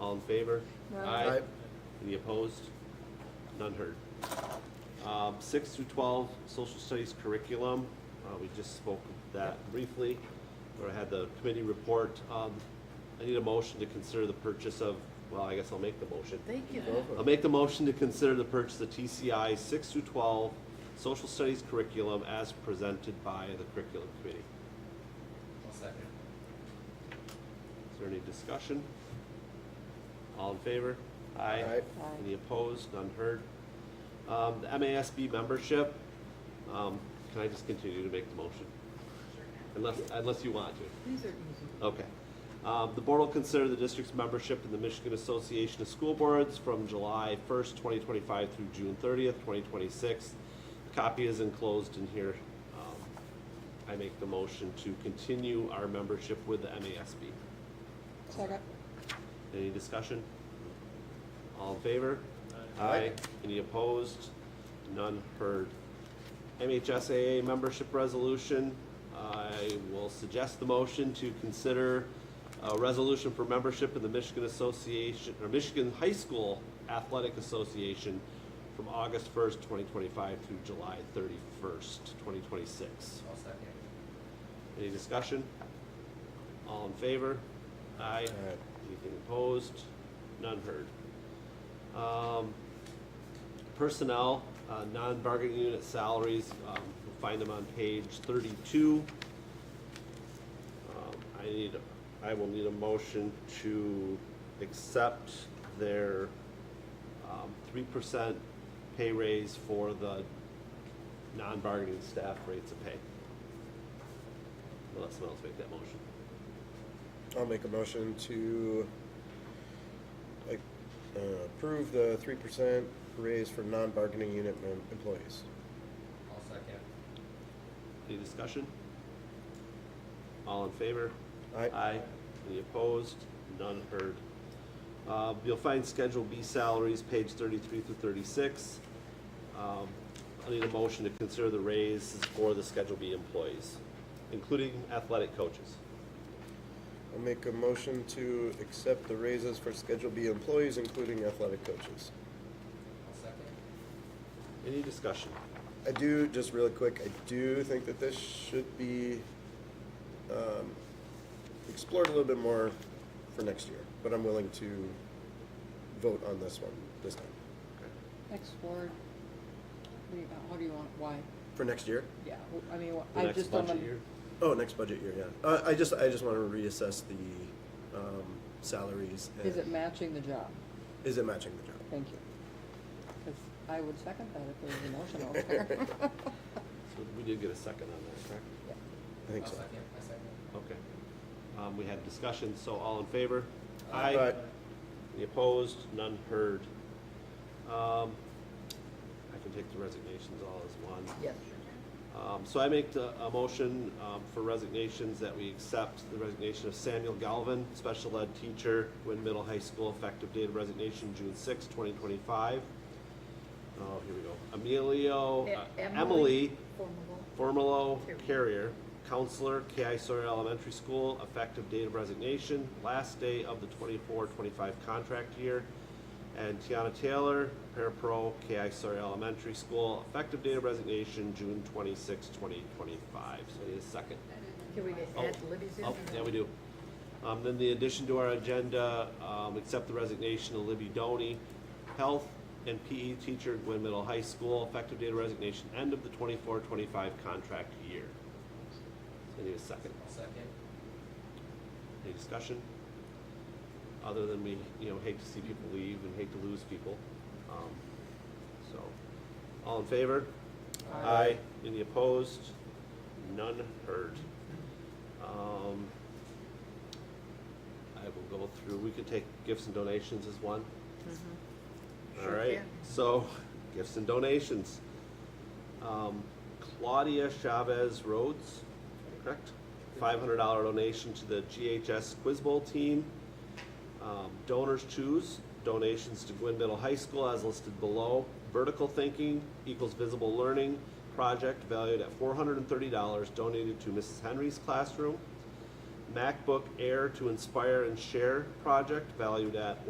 All in favor? Aye. Aye. Any opposed? None heard. Um, Six through 12, social studies curriculum, Uh, we just spoke of that briefly, or had the committee report. Um, I need a motion to consider the purchase of, well, I guess I'll make the motion. Thank you. Go for it. I'll make the motion to consider the purchase of TCI six through 12, social studies curriculum as presented by the curriculum committee. I'll second. Is there any discussion? All in favor? Aye. Aye. Any opposed? None heard. Um, the MASB membership, um, can I just continue to make the motion? Unless, unless you want to. These are easy. Okay. Um, The board will consider the district's membership in the Michigan Association of School Boards from July 1st, 2025 through June 30th, 2026. Copy is enclosed in here. Um, I make the motion to continue our membership with the MASB. Second. Any discussion? All in favor? Any opposed? None heard. MHSAA membership resolution, I will suggest the motion to consider a resolution for membership in the Michigan Association, or Michigan High School Athletic Association from August first, twenty twenty-five through July thirty-first, twenty twenty-six. I'll second. Any discussion? All in favor? Aye. Aye. Anything opposed? None heard. Um, Personnel, uh, non-bargaining unit salaries, um, you'll find them on page thirty-two. Um, I need, I will need a motion to accept their um, three percent pay raise for the non-bargaining staff rates of pay. Well, let someone else make that motion. I'll make a motion to like, uh, approve the three percent raise for non-bargaining unit mem- employees. I'll second. Any discussion? All in favor? Aye. Any opposed? None heard. Uh, you'll find Schedule B salaries, page thirty-three through thirty-six. Um, I need a motion to consider the raises for the Schedule B employees, including athletic coaches. I'll make a motion to accept the raises for Schedule B employees, including athletic coaches. I'll second. Any discussion? I do, just really quick, I do think that this should be um, explored a little bit more for next year, but I'm willing to vote on this one this time. Explore, what do you, how do you want, why? For next year? Yeah, wh- I mean, wh- The I next just don't budget want- year? Oh, next budget year, yeah. Uh, I just, I just want to reassess the um, salaries. and- Is it matching the job? Is it matching the job? Thank you. 'Cause I would second that if there was an motion over there. So we did get a second on that, correct? Yeah. I think I'll so. second. I second. Okay. Um, we had discussion, so all in favor? Aye. Any opposed? None heard. Um, I can take the resignations all as one. Yes. Um, so I make the, a motion, um, for resignations that we accept the resignation of Samuel Galvin, special ed teacher, Wynn Middle High School, effective date of resignation, June sixth, twenty twenty-five. Oh, here we go. Emilio, uh, E- Emily Formable. Formalo Carrier. Carrier, counselor, KI Sawyer Elementary School, effective date of resignation, last day of the 24-25 contract year. And Tiana Taylor, parapro, KI Sawyer Elementary School, effective date of resignation, June 26, 2025. So need a second. Can we Oh, add Libby's in? Oh, or yeah, no? we do. Um, then the addition to our agenda, um, accept the resignation of Libby Doney, health and PE teacher at Gwynn Middle High School, effective date of resignation, end of the 24-25 contract year. So I need a second. I'll second. Any discussion? Other than we, you know, hate to see people leave and hate to lose people. Um, so, all in favor? Aye. Any opposed? None heard. Um, I will go through, we could take gifts and donations as one. All Mm-hmm. Sure right, can. so gifts and donations. Um, Claudia Chavez Rhodes, correct? Five hundred dollar donation to the GHS Quiz Bowl team. Um, donors choose donations to Gwynn Middle High School as listed below. Vertical Thinking equals Visible Learning project valued at four hundred and thirty dollars donated to Mrs. Henry's classroom. MacBook Air to Inspire and Share project valued at one.